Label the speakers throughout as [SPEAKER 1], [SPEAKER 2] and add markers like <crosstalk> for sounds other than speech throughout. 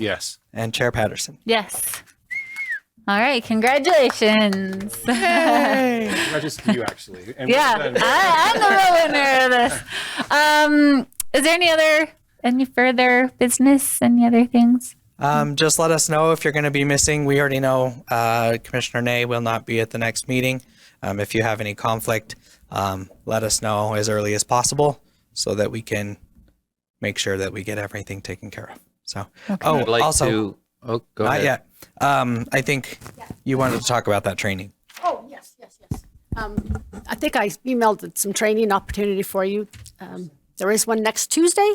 [SPEAKER 1] Yes.
[SPEAKER 2] and Chair Patterson.
[SPEAKER 3] Yes. All right, congratulations. <laughs>
[SPEAKER 1] Congratulations to you, actually. And
[SPEAKER 3] yeah,
[SPEAKER 1] well done.
[SPEAKER 3] I, I'm the real winner of this. Um, is there any other, any further business, any other things?
[SPEAKER 2] Um, just let us know if you're going to be missing. We already know uh, Commissioner Nay will not be at the next meeting. Um, if you have any conflict, um, let us know as early as possible so that we can make sure that we get everything taken care of. So, oh,
[SPEAKER 4] I'd like
[SPEAKER 2] also,
[SPEAKER 4] to. Oh, go
[SPEAKER 2] not
[SPEAKER 4] ahead.
[SPEAKER 2] yet. Um, I think you wanted to talk about that training.
[SPEAKER 5] Oh, yes, yes, yes. Um, I think I emailed some training opportunity for you. Um, There is one next Tuesday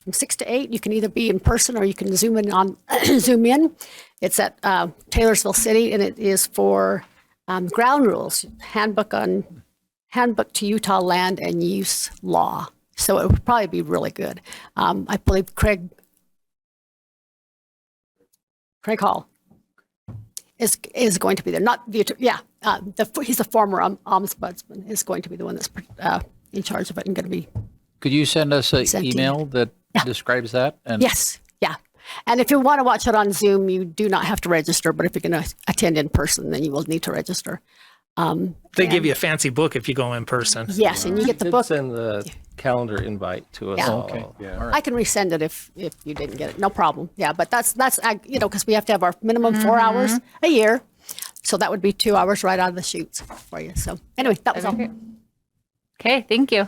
[SPEAKER 5] from 6 to 8. You can either be in person or you can Zoom in on, <clears throat> Zoom in. It's at uh, Taylorsville City, and it is for um, ground rules, handbook on, handbook to Utah land and use law. So it would probably be really good. Um, I believe Craig, Craig Hall is is going to be there. Not the attorney. Yeah, uh, the he's a former um, ombudsman is going to be the one that's uh, in charge of it and going to be
[SPEAKER 4] Could you send us an
[SPEAKER 5] Sent to you.
[SPEAKER 4] email that describes that? And
[SPEAKER 5] yes, yeah. And if you want to watch it on Zoom, you do not have to register. But if you're going to attend in person, then you will need to register.
[SPEAKER 6] They give you a fancy book if you go in person.
[SPEAKER 5] Yes, and you get the
[SPEAKER 7] Did
[SPEAKER 5] book.
[SPEAKER 7] Send the calendar invite to us
[SPEAKER 5] Yeah.
[SPEAKER 7] all.
[SPEAKER 4] Okay.
[SPEAKER 1] Yeah.
[SPEAKER 5] I can resend it if if you didn't get it. No problem. Yeah, but that's that's uh, you know because we have to have our minimum four hours a year, so that would be two hours right out of the shoots for you. So anyway, that was all.
[SPEAKER 3] Okay, thank you.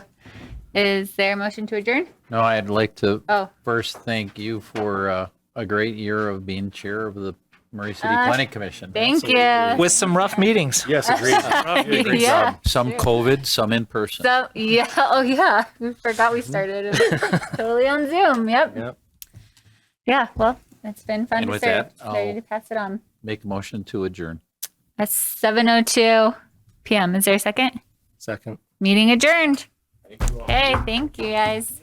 [SPEAKER 3] Is there a motion to adjourn?
[SPEAKER 4] No, I'd like to
[SPEAKER 3] Oh.
[SPEAKER 4] first thank you for uh, a great year of being chair of the Murray City Planning Commission.
[SPEAKER 3] Thank you.
[SPEAKER 6] With some rough meetings.
[SPEAKER 1] Yes,
[SPEAKER 3] <laughs>
[SPEAKER 1] agreed. You did a great job.
[SPEAKER 3] Yeah.
[SPEAKER 4] Some COVID, some in person.
[SPEAKER 3] So yeah, <laughs> oh yeah, we forgot we started totally on Zoom. Yep.
[SPEAKER 7] Yep.
[SPEAKER 3] Yeah. Well, it's been fun
[SPEAKER 4] And
[SPEAKER 3] to
[SPEAKER 4] with
[SPEAKER 3] serve.
[SPEAKER 4] that, I'll-
[SPEAKER 3] Ready to pass it on.
[SPEAKER 4] Make a motion to adjourn.
[SPEAKER 3] That's seven oh two p.m. Is there a second?
[SPEAKER 7] Second.
[SPEAKER 3] Meeting adjourned. Okay. Thank you guys.